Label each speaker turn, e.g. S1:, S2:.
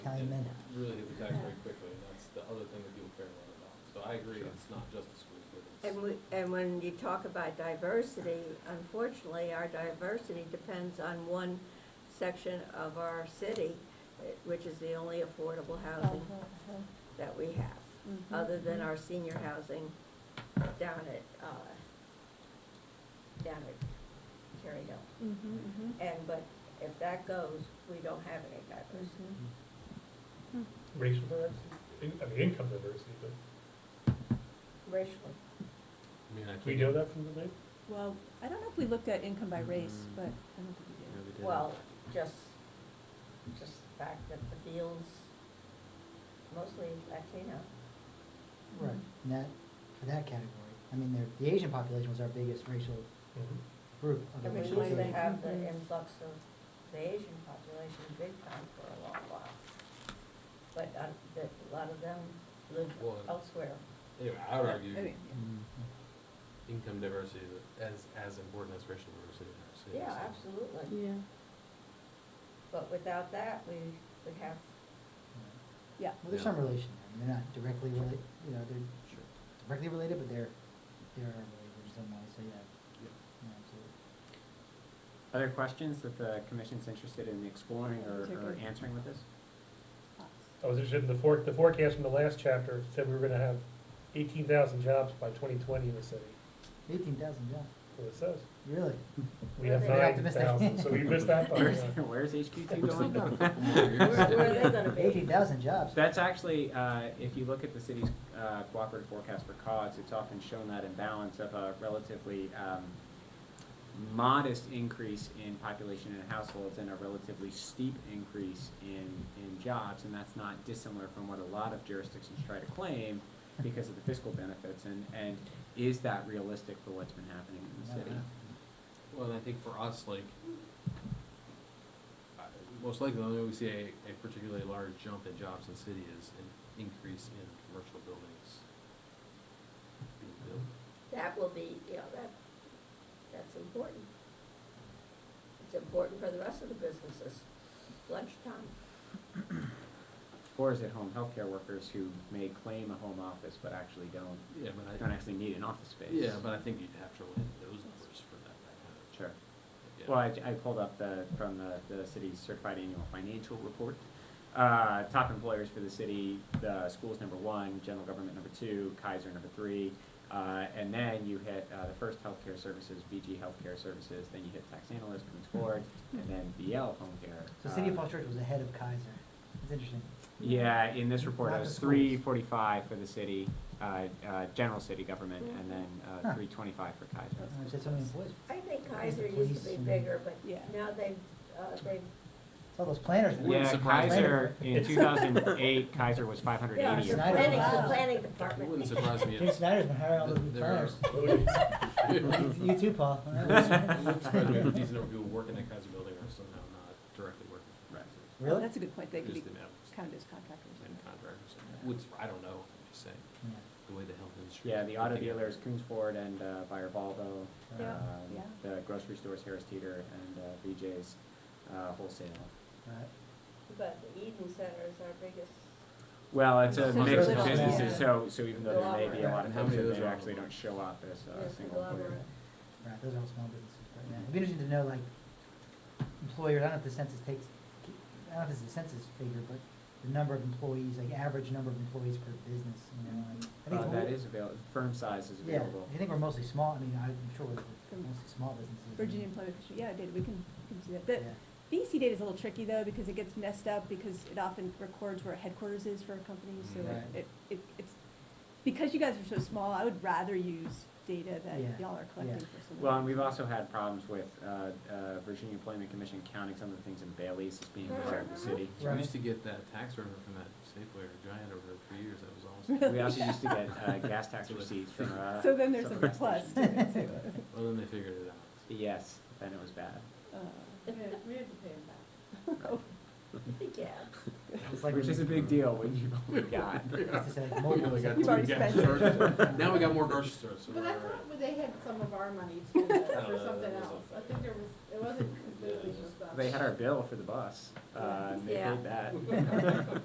S1: a minute.
S2: really hit the tax very quickly, and that's the other thing that people care a lot about. So I agree, it's not just the schools, but it's,
S3: And we, and when you talk about diversity, unfortunately, our diversity depends on one section of our city, eh, which is the only affordable housing that we have,
S4: Mhm.
S3: other than our senior housing down at, uh, down at Cherry Hill.
S4: Mhm, mhm.
S3: And, but if that goes, we don't have any diversity.
S4: Mhm. Hmm.
S5: racial diversity, in- I mean, income diversity, but
S3: Racially,
S2: I mean, I think.
S5: we know that from the name?
S4: Well, I don't know if we looked at income by race,
S2: Mm.
S4: but I don't think we did.
S3: well, just, just the fact that the fields mostly Latino.
S1: Right, in that, for that category. I mean, there- the Asian population was our biggest racial
S5: mm-hmm.
S1: group of the
S3: I mean, we
S1: racial
S3: used to
S1: group.
S3: have the
S4: Mhm.
S3: influx of the Asian population big time for a long while. But uh, the- a lot of them live
S2: Well,
S3: elsewhere.
S2: Anyway, I would
S4: I mean,
S2: argue
S1: Mm,
S2: income diversity is as, as important as racial diversity in our city.
S3: Yeah,
S2: so.
S3: absolutely.
S4: Yeah,
S3: But without that, we would have,
S1: yeah.
S4: yeah,
S1: Well, there's
S2: Yeah.
S1: some relation there. I mean, They're not directly related, you know, they're
S2: Sure.
S1: directly related, but they're, they're related in some way, so yeah. yeah, absolutely.
S6: Other questions that the commission's interested in exploring or, or
S4: Particularly.
S6: answering with this?
S5: I was interested in the fork, the forecast from the last chapter said we were gonna have eighteen thousand jobs by twenty twenty in the city,
S1: Eighteen thousand, yeah,
S5: That's what it says.
S1: really?
S5: We have
S3: Very
S5: nine
S1: optimistic.
S5: thousand, so we missed
S3: Oh,
S5: that by,
S6: Where's,
S5: uh,
S6: where's HQ two
S1: We're still
S6: going?
S3: where where are they gonna be?
S1: Eighteen thousand jobs.
S6: That's actually, uh, if you look at the city's, uh, cooperative forecast for COGS, it's often shown that imbalance of a relatively, um, modest increase in population and households and a relatively steep increase in, in jobs, and that's not dissimilar from what a lot of jurisdictions try to claim because of the fiscal benefits, and, and is that realistic for what's been happening in the city?
S2: Well, and I think for us, like, I- most likely, the only way we see a, a particularly large jump in jobs in the city is an increase in commercial buildings being built.
S3: That will be, you know, that, that's important. It's important for the rest of the businesses. Lunchtime,
S6: Or is it home healthcare workers who may claim a home office but actually don't,
S2: Yeah, but I.
S6: don't actually need an office space?
S2: Yeah, but I think you'd have to run those numbers for that, that kind of.
S6: Sure.
S2: yeah.
S6: Well, I, I pulled up the, from the, the city's certified annual financial report. Uh, top employers for the city, the school's number one, general government number two, Kaiser number three. Uh, and then you hit, uh, the first healthcare services, VG Healthcare Services, then you hit tax analyst, Queens Board, and then BL Home Care.
S1: So City of
S6: Uh,
S1: Falls Church was ahead of Kaiser. It's interesting.
S6: Yeah, in this report,
S1: Not
S6: it
S1: the
S6: was
S1: schools.
S6: three forty-five for the city, uh, uh, general city government, and then,
S1: Hmm. Huh.
S6: uh, three twenty-five for Kaiser.
S1: Uh, It's had so many employees.
S3: I think
S1: the
S3: Kaiser used to
S1: police
S3: be
S1: and-
S3: bigger, but
S4: Yeah.
S3: now they've, uh, they've
S1: It's all those planners. that-
S2: Wouldn't
S6: Yeah,
S2: surprise me.
S6: Kaiser, in two thousand and eight, Kaiser was five hundred
S3: Yeah,
S6: eighty.
S3: it's the
S1: Snyder.
S3: planning, the
S4: Wow.
S3: planning
S2: It
S3: department.
S2: wouldn't surprise me
S1: Jim
S2: if.
S1: Snyder's been hiring all those
S2: th-
S1: new
S2: there are-
S1: planners.
S2: It wouldn't
S1: You too, Paul.
S2: surprise me if a decent number of people working at Kaiser Building are somehow not directly working. for
S6: Right.
S2: Kaiser.
S4: Well,
S1: Really?
S4: Oh, That's a good point, they could be
S2: Just the amount
S4: counted as contractors.
S2: of and contractors. Would, I don't know, I'm just saying,
S1: Yeah.
S2: the way the health industry.
S6: Yeah,
S2: is
S6: the auto
S2: picking up.
S6: dealers, Coons Ford and, uh, Buyer Volvo.
S1: Yeah,
S6: um,
S4: yeah.
S6: The grocery stores, Harris Teeter and, uh, BJ's, uh, wholesale.
S1: Right.
S3: But the Eden Center is our biggest,
S6: Well, it's a
S4: It's a
S6: mix of
S1: little-
S6: businesses,
S1: yeah.
S6: so, so even though there may be a lot of
S2: How many of
S6: folks that
S2: those
S6: they
S2: are on
S6: actually
S2: the
S6: don't show up
S3: Yeah, it's
S6: as a
S3: a
S6: single employer.
S3: conglomerate.
S1: Right, those are all small businesses, but yeah, it'd be interesting to know, like, employers, I don't know if the census takes, I don't know if it's a census figure, but the number of employees, like, average number of employees per business, you know, like, I think.
S6: Uh,
S1: we're-
S6: that is available, firm size is
S1: Yeah,
S6: available.
S1: I think we're mostly small, I mean, I'm sure we're
S4: From
S1: mostly small businesses.
S4: Virginia
S2: Mm-hmm.
S4: Employment Commission, yeah, data, we can, we can see that. The
S1: Yeah.
S4: BC data is a little tricky though, because it gets messed up, because it often records where headquarters is for a company, so it-
S1: Right.
S4: it, it, it's, because you guys are so small, I would rather use data that
S1: Yeah,
S4: y'all are
S1: yeah.
S4: collecting for some of
S6: Well, and
S4: these.
S6: we've also had problems with uh, uh, Virginia Employment Commission counting some of the things in Bailey's as being reserved to city.
S2: We
S1: Right.
S2: used to get that tax revenue from that Safeway or Giant over there for years, that was awesome.
S6: We also used to get uh, gas tax receipts from. uh,
S4: So then there's
S6: some
S4: a
S6: of the gas
S4: plus
S6: stations.
S4: to it too.
S2: Well, then they figured it out.
S6: Yes, then it was bad.
S4: Uh,
S3: we had to pay them back. Yeah,
S1: It's like
S6: Which
S1: when
S6: is a
S1: you-
S6: big deal when you only got.
S1: it's just like
S2: We
S1: mobile.
S2: only got
S4: You've
S2: two
S4: already
S2: gas
S4: spent
S1: it.
S2: stations. Now we got more grocery stores, so
S7: But
S2: we're
S7: I
S2: all right.
S7: thought they had some of our money too, for
S2: that
S7: something
S2: was
S7: else.
S2: a-
S7: I think there was, it wasn't completely
S2: Yeah.
S7: just us.
S6: They had our bill for the bus, uh, and they
S3: Yeah.
S6: paid that.